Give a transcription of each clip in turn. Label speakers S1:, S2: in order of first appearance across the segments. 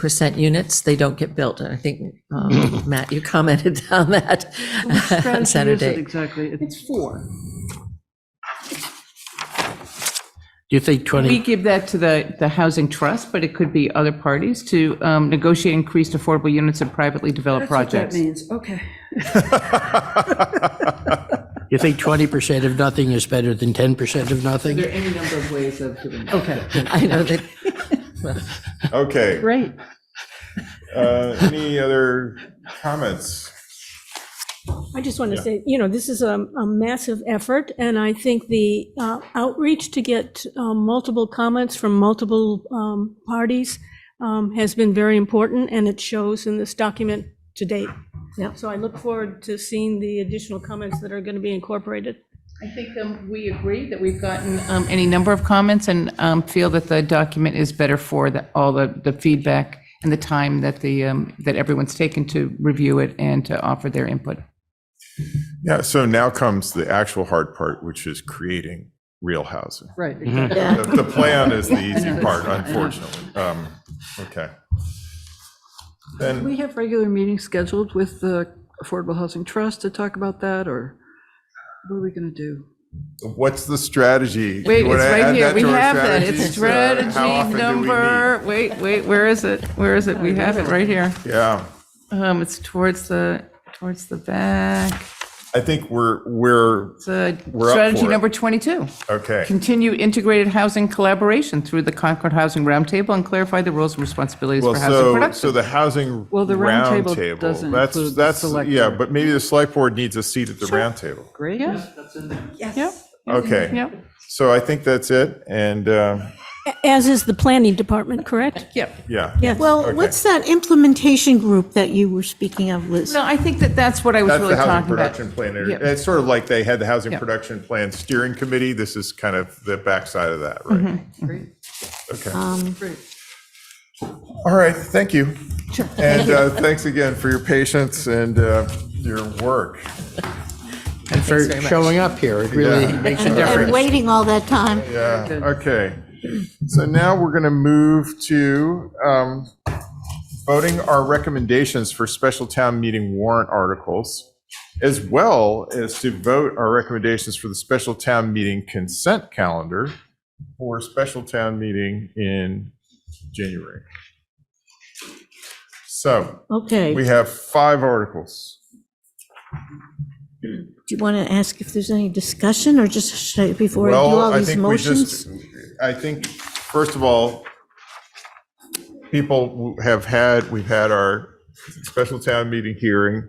S1: percent units, they don't get built. And I think, um, Matt, you commented on that on Saturday.
S2: Exactly.
S3: It's four.
S4: Do you think
S2: We
S4: 20,
S2: give that to the, the Housing Trust, but it could be other parties to um, negotiate increased affordable units in privately developed
S3: That's what that
S2: projects.
S3: means, okay.
S4: you think 20% of nothing is better than 10% of nothing?
S2: are any number of ways of doing that.
S1: Okay, I know that,
S5: Okay,
S2: Great.
S5: uh, any other comments?
S6: I just want to say, you know, this is a, a massive effort, and I think the uh, outreach to get um, multiple comments from multiple um, parties um, has been very important, and it shows in this document to date.
S3: Yeah.
S6: So I look forward to seeing the additional comments that are going to be incorporated.
S2: I think um, we agree that we've gotten um, any number of comments and um, feel that the document is better for the, all the, the feedback and the time that the, um, that everyone's taken to review it and to offer their input.
S5: Yeah, so now comes the actual hard part, which is creating real housing.
S2: Right.
S5: The the plan is the easy part, unfortunately. Um, Okay. Then,
S3: We have regular meetings scheduled with the Affordable Housing Trust to talk about that, or what are we going to do?
S5: what's the strategy?
S2: Wait,
S5: You wanna
S2: it's
S5: add
S2: right here.
S5: that
S2: We
S5: to our
S2: have that. It's
S5: strategies? Uh, how often
S2: strategy
S5: do we meet?
S2: number, wait, wait, where is it? Where is it? We have it right here.
S5: Yeah,
S2: Um, it's towards the, towards the back.
S5: I think we're, we're,
S2: It's uh,
S5: We're up
S2: strategy
S5: for it.
S2: number 22.
S5: okay.
S2: Continue integrated housing collaboration through the Concord Housing Roundtable and clarify the roles and responsibilities
S5: Well,
S2: for housing
S5: so,
S2: production.
S5: so the housing
S3: Well, the round table
S5: roundtable,
S3: doesn't
S5: that's-
S3: include the
S5: that's-
S3: select
S5: Yeah,
S3: board.
S5: but maybe the select board needs a seat at the roundtable.
S3: Great.
S2: Yeah, yeah,
S3: Yes.
S5: Okay.
S2: yeah,
S5: So I think that's it, and, uh,
S6: A- As is the planning department, correct?
S2: yeah.
S5: yeah.
S6: Yes.
S7: Well, what's that implementation group that you were speaking of, Liz?
S2: No, I think that that's what I was
S5: That's
S2: really
S5: the housing
S2: talking
S5: production
S2: about.
S5: plan. area.
S2: Yeah.
S5: It's sort of like they had the housing
S2: Yeah.
S5: production plan steering committee. This is kind of the backside of that, right?
S2: Mm-hmm.
S5: Okay.
S2: Um,
S5: All right, thank you. And uh, thanks again for your patience and uh, your work.
S4: And for showing up here, it really
S5: Yeah.
S4: makes a
S7: And
S4: difference.
S7: Waiting all that time.
S5: Yeah, okay. So now we're going to move to um, voting our recommendations for special town meeting warrant articles, as well as to vote our recommendations for the special town meeting consent calendar for special town meeting in January. So
S7: Okay.
S5: we
S7: Do
S5: have five articles.
S7: you want to ask if there's any discussion or just say before I do
S5: Well,
S7: all
S5: I
S7: these
S5: think we just.
S7: motions?
S5: I think, first of all, people have had, we've had our special town meeting hearing.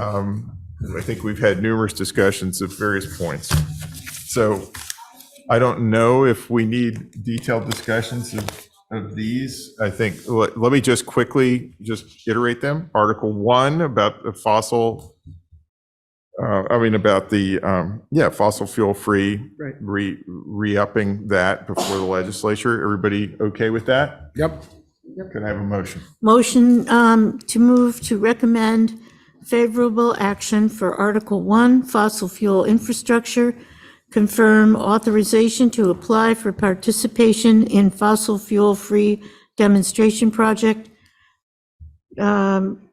S5: Um, I think we've had numerous discussions of various points. So I don't know if we need detailed discussions of, of these. I think, let, let me just quickly just iterate them. Article one about the fossil, uh, I mean, about the, um, yeah, fossil fuel-free,
S3: Right.
S5: re, re-upping that before the legislature. Everybody okay with that? Yep. Could I have a motion?
S7: Motion um, to move to recommend favorable action for Article 1, fossil fuel infrastructure, confirm authorization to apply for participation in fossil fuel-free demonstration project um,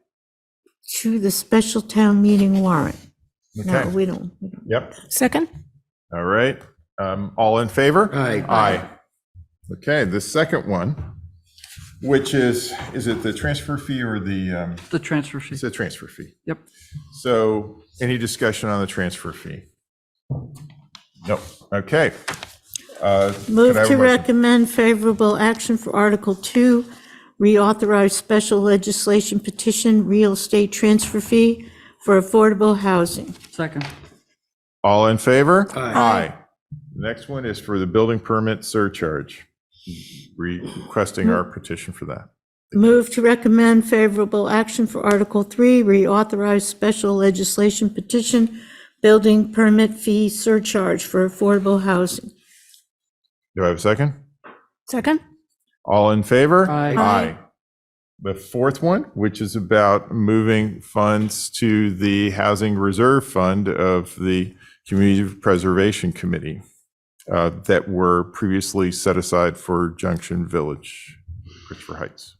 S7: to the special town meeting warrant. No,
S5: Okay.
S7: we don't. we don't.
S5: Yep.
S6: Second?
S5: All right. Um, All in favor?
S4: Aye.
S5: Aye. Okay, the second one, which is, is it the transfer fee or the, um,
S3: The transfer fee.
S5: it's a transfer fee.
S3: Yep.
S5: So any discussion on the transfer fee? Nope. Okay. Uh, could I
S7: Move
S5: have
S7: to
S5: a motion?
S7: recommend favorable action for Article 2, reauthorize special legislation petition real estate transfer fee for affordable housing.
S3: Second.
S5: All in favor?
S4: Aye.
S5: The Next one is for the building permit surcharge, requesting our petition for that.
S7: Move to recommend favorable action for Article 3, reauthorize special legislation petition building permit fee surcharge for affordable housing.
S5: Do I have a second?
S6: Second?
S5: All in favor?
S4: Aye.
S5: Aye. The fourth one, which is about moving funds to the Housing Reserve Fund of the Community Preservation Committee uh, that were previously set aside for Junction Village, Christopher Heights.